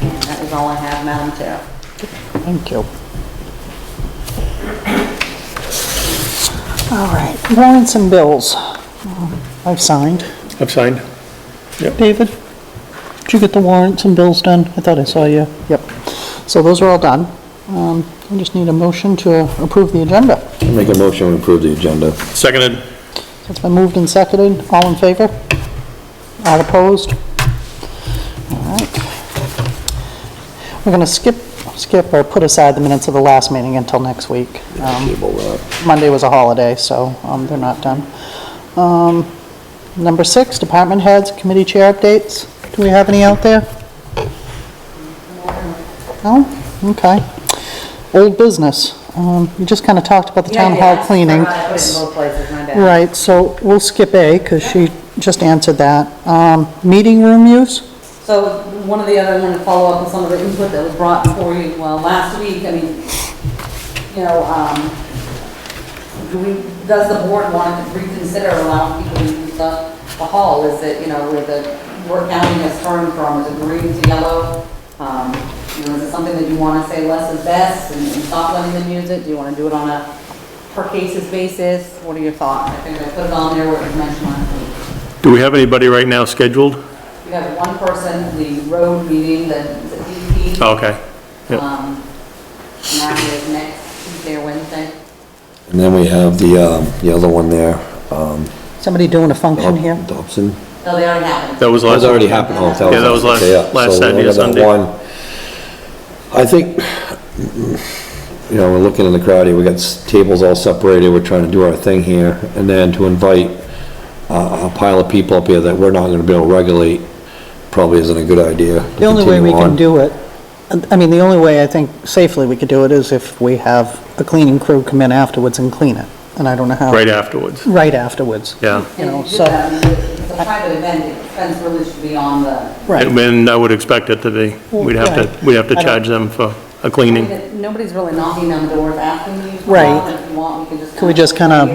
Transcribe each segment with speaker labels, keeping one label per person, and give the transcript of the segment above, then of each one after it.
Speaker 1: is all I have, Madam Chair.
Speaker 2: Thank you. All right, warrants and bills. uh, I've signed.
Speaker 3: I've signed.
Speaker 2: David, did you get the warrants and bills done? I thought I saw you. Yep. So those are all done. Um, I just need a motion to approve the agenda.
Speaker 4: Make a motion to approve the agenda.
Speaker 3: Seconded.
Speaker 2: It's been moved and seconded. All in favor? All opposed? All right. We're going to skip, skip or put aside the minutes of the last meeting until next week. Um,
Speaker 4: Table that.
Speaker 2: Monday was a holiday, so um, they're not done. Um, Number six, department heads, committee chair updates. Do we have any out there? No? Okay. Old business. Um, You just kind of talked about the town hall cleaning.
Speaker 1: I put it in both places, my bad.
Speaker 2: Right, so we'll skip A because she just answered that. Um, Meeting room use?
Speaker 1: So one of the other, I want to follow up on some of the input that was brought for you, well, last week, I mean, you know, um, do we, does the board want to reconsider allowing people to use the, the hall? Is it, you know, where the, where county has turned from, is it green to yellow? Um, you know, is it something that you want to say less is best and and stop letting them use it? Do you want to do it on a per cases basis? What are your thoughts? I think I put it on there where it was mentioned last week.
Speaker 3: Do we have anybody right now scheduled?
Speaker 1: We have one person, the road meeting, the the DEP.
Speaker 3: Oh, Okay. yep.
Speaker 1: Um, And that is next Tuesday or Wednesday.
Speaker 4: And then we have the, um, the other one there, um,
Speaker 2: Somebody doing a function here?
Speaker 4: Dobson.
Speaker 1: No, they already happened.
Speaker 3: That was last.
Speaker 4: That's already happened. Oh,
Speaker 3: Yeah, that was last-
Speaker 4: okay, yeah.
Speaker 3: last
Speaker 4: So we
Speaker 3: Saturday,
Speaker 4: only got
Speaker 3: Sunday.
Speaker 4: that one. I think, you know, we're looking in the crowd here, we got s- tables all separated, we're trying to do our thing here, and then to invite uh, a pile of people up here that we're not gonna be able to regulate, probably isn't a good idea. to
Speaker 2: The only way we
Speaker 4: continue
Speaker 2: can
Speaker 4: on.
Speaker 2: do it, I mean, the only way I think safely we could do it is if we have a cleaning crew come in afterwards and clean it, and I don't know how.
Speaker 3: Right afterwards.
Speaker 2: Right afterwards.
Speaker 3: Yeah.
Speaker 2: You know,
Speaker 1: And if you
Speaker 2: so-
Speaker 1: did that, It's a private event, the expense really should be on the,
Speaker 2: Right.
Speaker 3: And then I would expect it to be. We'd have
Speaker 2: Right.
Speaker 3: to, we'd have to
Speaker 2: I don't-
Speaker 3: charge them for a
Speaker 1: I mean,
Speaker 3: cleaning.
Speaker 1: that nobody's really knocking on the doors asking you. to come
Speaker 2: Right.
Speaker 1: out. If you want, we can just.
Speaker 2: Can we just kinda-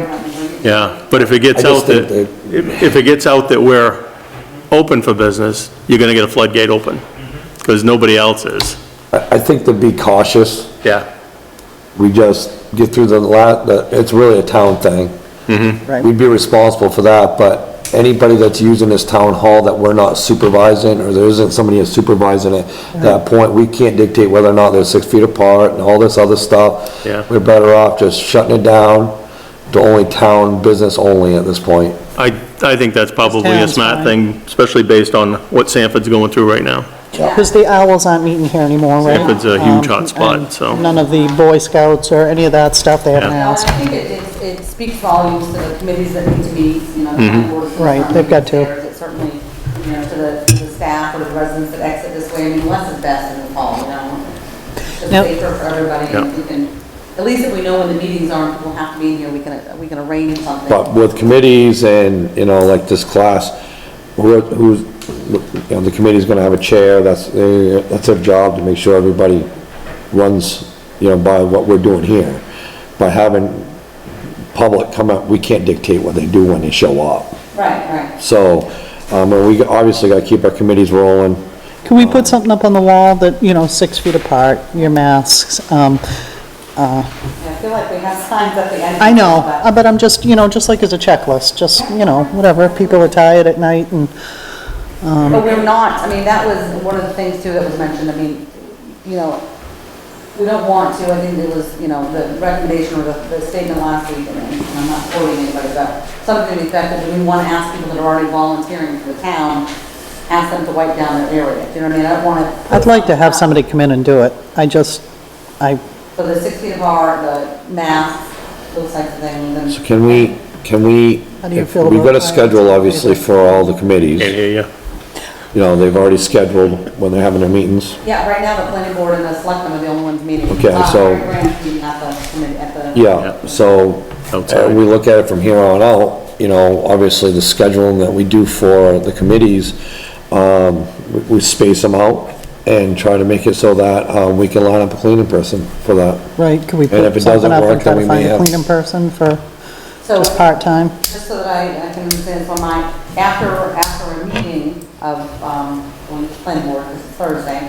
Speaker 3: Yeah, but if it gets
Speaker 4: I just
Speaker 3: out that,
Speaker 4: think
Speaker 3: if if it gets out that we're open for business, you're gonna get a floodgate open, because nobody else is.
Speaker 4: I, I think to be cautious,
Speaker 3: Yeah,
Speaker 4: we just get through the la, the, it's really a town thing.
Speaker 2: Right.
Speaker 4: We'd be responsible for that, but anybody that's using this town hall that we're not supervising, or there isn't somebody that's supervising it, at that point, we can't dictate whether or not they're six feet apart and all this other stuff.
Speaker 3: Yeah.
Speaker 4: We're better off just shutting it down to only town business only at this point.
Speaker 3: I, I think that's probably a
Speaker 2: Sounds
Speaker 3: smart
Speaker 2: fine.
Speaker 3: thing, especially based on what Sanford's going through right now.
Speaker 2: Because the owls aren't meeting here anymore, right?
Speaker 3: Sanford's a huge
Speaker 2: Um,
Speaker 3: hotspot,
Speaker 2: and
Speaker 3: so-
Speaker 2: None of the Boy Scouts or any of that stuff, they haven't
Speaker 1: No,
Speaker 2: asked.
Speaker 1: I think it, it- it speaks volumes to the committees that need to meet, you know. the board of
Speaker 2: Mm-hmm. Right,
Speaker 1: selectmen,
Speaker 2: they've got to.
Speaker 1: It certainly, you know, to the, to the staff or the residents that exit this way, I mean, less is best in the fall, you know? It's Just
Speaker 2: Yep.
Speaker 1: safer for everybody, and we can, at least if we know when the meetings are, and people have to be in here, we can, we can arrange something.
Speaker 4: But with committees and, you know, like this class, who- who's, you know, the committee's gonna have a chair, that's, their- that's their job to make sure everybody runs, you know, by what we're doing here. By having public come up, we can't dictate what they do when they show up.
Speaker 1: Right, right.
Speaker 4: So, um, and we obviously gotta keep our committees rolling.
Speaker 2: Can we put something up on the wall that, you know, six feet apart, your masks? um,
Speaker 1: I feel like we have signs at the end.
Speaker 2: I know,
Speaker 1: but-
Speaker 2: uh, but I'm just, you know, just like as a checklist, just, you know, whatever, people are tired at night and,
Speaker 1: But we're
Speaker 4: Um,
Speaker 1: not, I mean, that was one of the things too that was mentioned, I mean, you know, we don't want to, I think it was, you know, the recommendation or the, the statement last week, and and I'm not quoting anybody, but something to the effect that we want to ask people that are already volunteering for the town, ask them to wipe down their area, Do you know what I mean? I don't want to.
Speaker 2: I'd like to have somebody come in and do it. I just, I,
Speaker 1: So the six feet apart, the masks, those types of things, and.
Speaker 4: So can we, can we,
Speaker 2: How do you feel
Speaker 4: we've got a
Speaker 2: about that?
Speaker 4: schedule obviously for all the committees.
Speaker 3: Can't hear you.
Speaker 4: You know, they've already scheduled when they're having their meetings.
Speaker 1: Yeah, right now, the planning board and the selectmen are the only ones meeting.
Speaker 4: Okay,
Speaker 1: Uh,
Speaker 4: so-
Speaker 1: Mary Grant's meeting at the, committee- at the.
Speaker 4: Yeah, so, uh,
Speaker 3: Outside.
Speaker 4: we look at it from here on out, you know, obviously the scheduling that we do for the committees, um, we- we space them out and try to make it so that, uh, we can line up a cleaning person for that.
Speaker 2: right, could we
Speaker 4: And if
Speaker 2: put
Speaker 4: it
Speaker 2: something
Speaker 4: doesn't
Speaker 2: up and
Speaker 4: work,
Speaker 2: try
Speaker 4: then
Speaker 2: to
Speaker 4: we
Speaker 2: find
Speaker 4: may
Speaker 2: a
Speaker 4: have-
Speaker 2: cleaning person for
Speaker 1: So-
Speaker 2: just part-time?
Speaker 1: Just so that I, I can understand, so my, after, after a meeting of, um, when the planning board, this is Thursday,